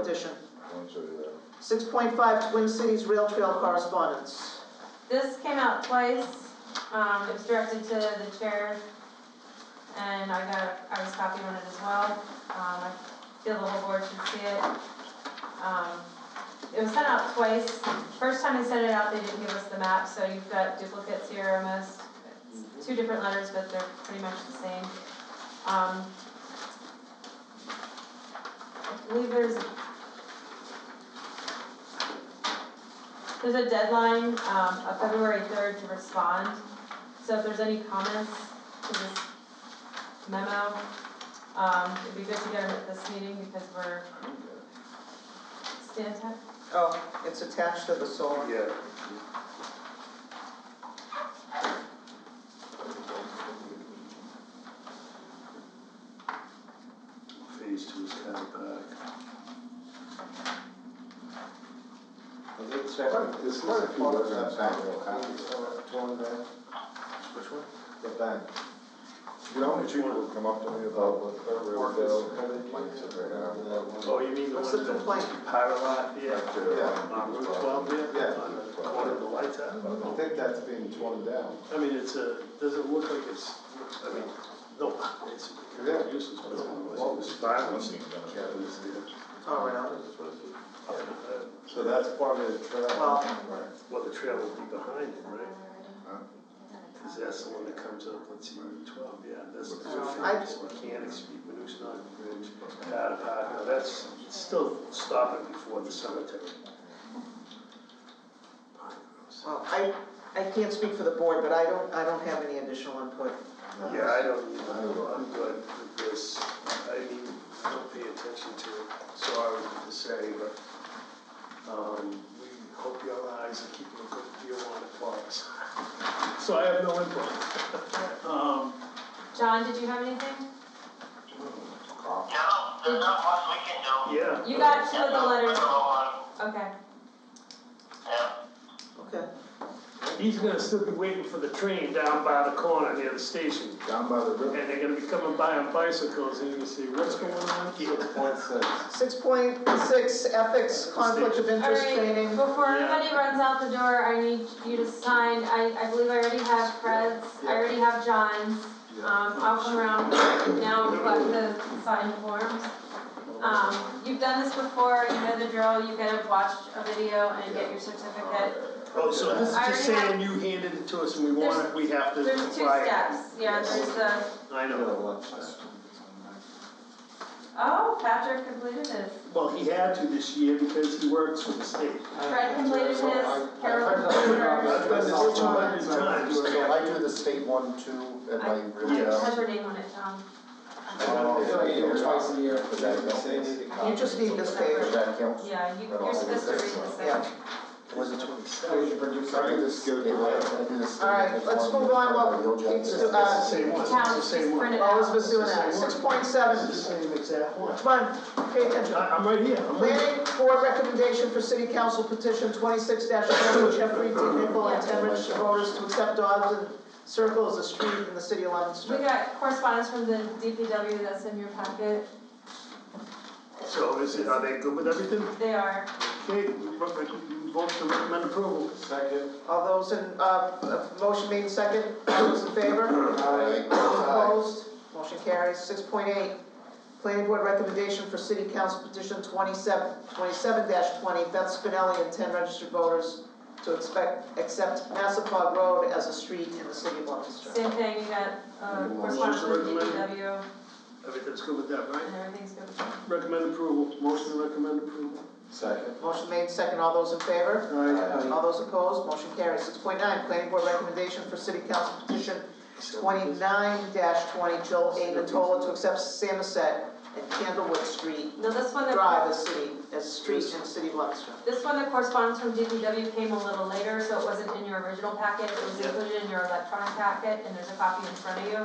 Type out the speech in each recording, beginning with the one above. petition. I'll show you that. Six point five, Twin Cities Rail Trail correspondence. This came out twice, um, it was directed to the chair, and I got, I was copied on it as well. Um, I feel the whole board should see it. Um, it was sent out twice, first time they sent it out, they didn't give us the map, so you've got duplicates here almost. It's Two different letters, but they're pretty much the same. Um, I believe there's There's a deadline, um, of February third to respond, so if there's any comments to this memo, um, it'd be good to get them at this meeting because we're. Stand time? Oh, it's attached to the solar. Yeah. Phase two is kind of back. This is a few words on back real copies. Which one? The back. You know how many people would come up to me about what the real bill, like, sit right Oh, you mean the What's one the that's complaint? power lot, yeah, now? on Route twelve there? uh, Yeah. On the corner of the lights out? I think that's being torn down. I mean, it's a, doesn't look like it's, I mean, no, it's kind of useless, but it's Well, it's it's violent. All right, I'll- Uh, So that's part of the trail. Well- Well, the trail will be behind it, right? Cause that's the one that comes up, let's see, Route twelve, yeah, that's the I- famous mechanic street, Manuxon Bridge, Data Park, now that's still stopping before the cemetery. Pine Groves. well, I, I can't speak for the board, but I don't, I don't have any additional input. Yeah, I don't, either. I'm good with this, I mean, I don't pay attention to it, sorry to say, but, um, we hope your eyes are keeping a good deal on it for us. So I have no input. Um, John, did you have anything? No, there's not much we can do. yeah. You got two of the letters, Yeah, okay. Okay. He's gonna still be waiting for the train down by the corner near the station, Down by the river. and they're gonna be coming by on bicycles, and you're gonna say, what's going on here? Point six. Six point six, ethics, conflict of interest Alright, training. before Yeah. anybody runs out the door, I need you to sign, I, I believe I already have Fred's, I already have John's. Um, I'll come around now and collect the signed forms. Um, you've done this before, you know the drill, you gotta watch a video and get your certificate. Oh, so this is I just already have- saying you handed it to us and we want it, we have to apply it. There's two steps, yeah, there's the, I know. oh, Patrick completed his, Well, he had to this year because he works for the state. Fred completed his, Carol completed hers. I've done That's this two not- hundred times. So I do the state one, two, and uh, my I, real. it has her name on it, Tom. So you do it twice a year for that, You just need this page. that counts? Yeah, you, you're supposed to read this. Yeah. Was it twenty-seven? All right, let's move on while Pete's, do- It's the uh, same one, it's Town, the same just print one. it It's out. Elizabeth's doing that. Six point seven, the same exact one. come on, pay attention. I, am right here, I'm right here. Planning board recommendation for city council petition twenty-six dash Jeffrey D. Nichol and ten registered voters to accept Dodson Circle as a street in the city of We Leominster. got correspondence from the DPW that's in your packet, So is it, are they good with everything? they are, Okay, we vote we vote to recommend approval. Second. All those in, uh, uh, motion made second, all those in favor? Those opposed, motion carries. Six point eight, planning board recommendation for city council petition twenty-seven, twenty-seven twenty, Beth Spinelli and ten registered voters to expect, accept Massapog Road as a street in the city of Leominster. same thing, you got, uh, Motion to correspondence from the recommend. DPW, Everything's good with that, right? and everything's good. Recommend approval, motion to recommend approval. Second. Motion made second, all those in favor? All right. All those opposed, motion carries. Six point nine, planning board recommendation for city council petition twenty-nine twenty, Joel A. Natola to accept Samoset and Candlewood Street Now, this one, Drive the, as city, as street in the city of Leominster. this one, the correspondence from DPW came a little later, so it wasn't in your original packet, it was Yeah. included in your electronic packet, and there's a copy in front of you.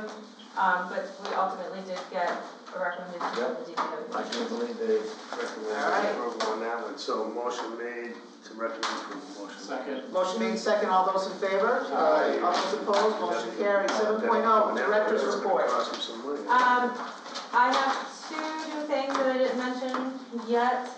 Um, but we ultimately did get a recommendation from the DPW. I can't believe they recommended approval on that one. So motion made to recommend approval, motion. Second. Motion made second, all those in favor? Aye. All those opposed, motion carries. Seven oh, director's report. Uh, Um, I have two new things that I didn't mention yet.